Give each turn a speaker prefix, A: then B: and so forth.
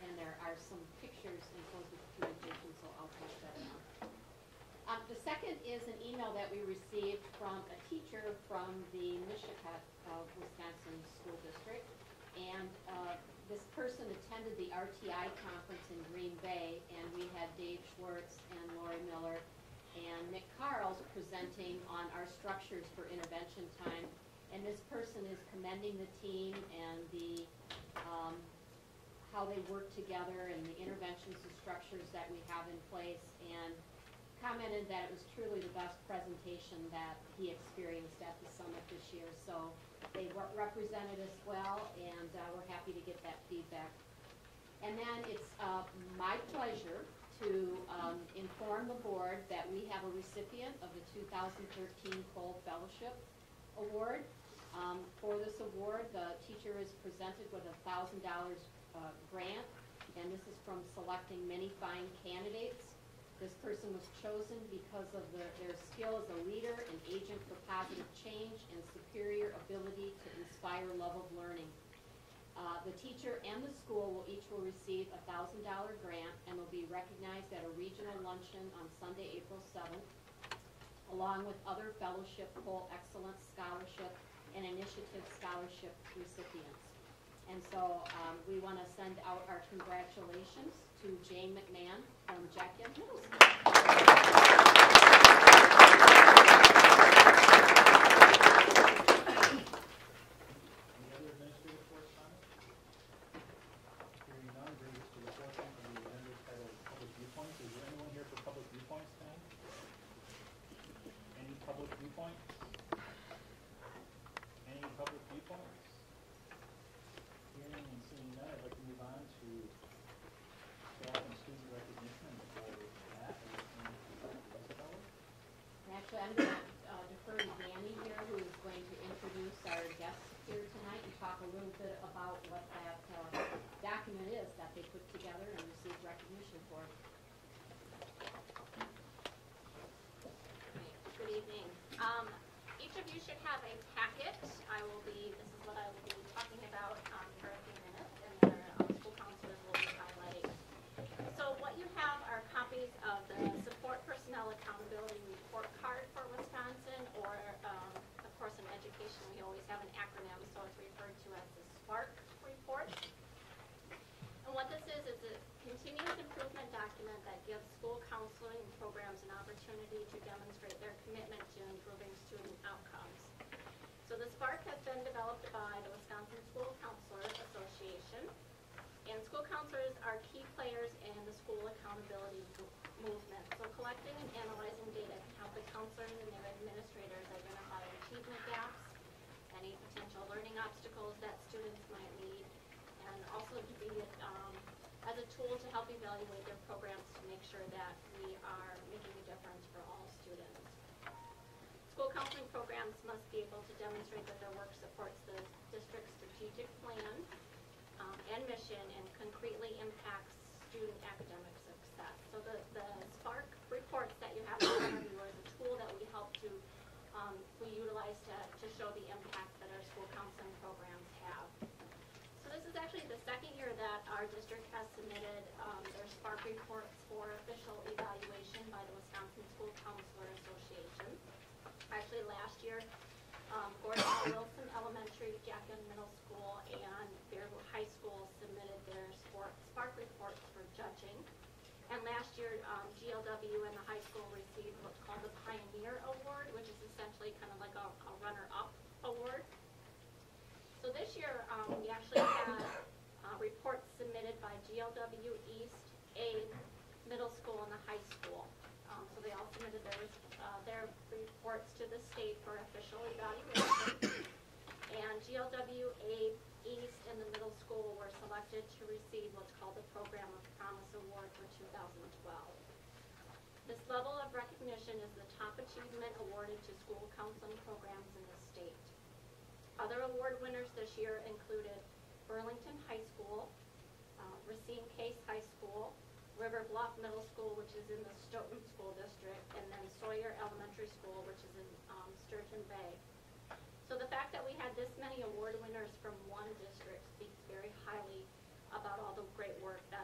A: Um, second is an email that we received from a teacher from the Mishakut of Wisconsin School District. And uh, this person attended the RTI conference in Green Bay, and we had Dave Schwartz and Lori Miller and Nick Carls presenting on our structures for intervention time. And this person is commending the team and the, um, how they work together and the interventions and structures that we have in place, and commented that it was truly the best presentation that he experienced at the summit this year. So they were- represented us well, and uh, we're happy to get that feedback. And then it's uh, my pleasure to um, inform the board that we have a recipient of the 2013 Cole Fellowship Award. Um, For this award, the teacher is presented with a $1,000 uh, grant, and this is from selecting many fine candidates. This person was chosen because of their their skill as a leader, an agent for positive change, and superior ability to inspire love of learning. Uh, The teacher and the school will each will receive a thousand dollar grant and will be recognized at a regional luncheon on Sunday, April seventh, along with other fellowship, Cole Excellence Scholarship, and Initiative Scholarship recipients. And so um, we want to send out our congratulations to Jane McMahon from Jack Yent Middle School.
B: Any other administrative correspondence? Hearing none, brings us to the portion of the agenda titled Public Viewpoints. Is there anyone here for public viewpoints tonight? Any public viewpoints? Any public viewpoints? Hearing and seeing none, I'd like to move on to staff and student recognition. And before that, I'd like to introduce Dr. Westfeller.
A: Actually, I'm going to defer to Danny here, who is going to introduce our guests here tonight and talk a little bit about what that uh, document is that they put together and received recognition for.
C: Right, Good evening. Um, each of you should have a packet. I will be, this is what I will be talking about, um, for a few minutes, and the um, school counselors will be highlighting. So what you have are copies of the Support Personnel Accountability Report Card for Wisconsin, or, um, of course, in education, we always have an acronym, so it's referred to as the SPARK report. And what this is, is a continuous improvement document that gives school counseling programs an opportunity to demonstrate their commitment to improving student outcomes. So the SPARK has been developed by the Wisconsin School Counselors Association, and school counselors are key players in the school accountability mo- movement. So collecting and analyzing data can help the counselors and their administrators identify achievement gaps, any potential learning obstacles that students might need, and also to be, um, as a tool to help evaluate their programs to make sure that we are making a difference for all students. School counseling programs must be able to demonstrate that their work supports the district's strategic plan um, and mission and concretely impacts student academic success. So the, the Spark reports that you have in front of you are the tool that we help to, um, we utilize to, to show the impact that our school counseling programs have. So this is actually the second year that our district has submitted um, their Spark reports for official evaluation by the Wisconsin School Counselor Association. Actually, last year, um, Gordon Wilson Elementary, Jack Young Middle School, and Bearwood High School submitted their sport, Spark reports for judging. And last year, um, GLW and the high school received what's called the Pioneer Award, which is essentially kind of like a, a runner-up award. So this year, um, we actually had, uh, reports submitted by GLW East, A, middle school and the high school. Um, so they all submitted their, uh, their reports to the state for official evaluation. And GLWA East and the middle school were selected to receive what's called the Program of Promise Award for two thousand twelve. This level of recognition is the top achievement awarded to school counseling programs in the state. Other award winners this year included Burlington High School, uh, Racine Case High School, River Bluff Middle School, which is in the Stoughton School District, and then Sawyer Elementary School, which is in um, Sturgeon Bay. So the fact that we had this many award winners from one district speaks very highly about all the great work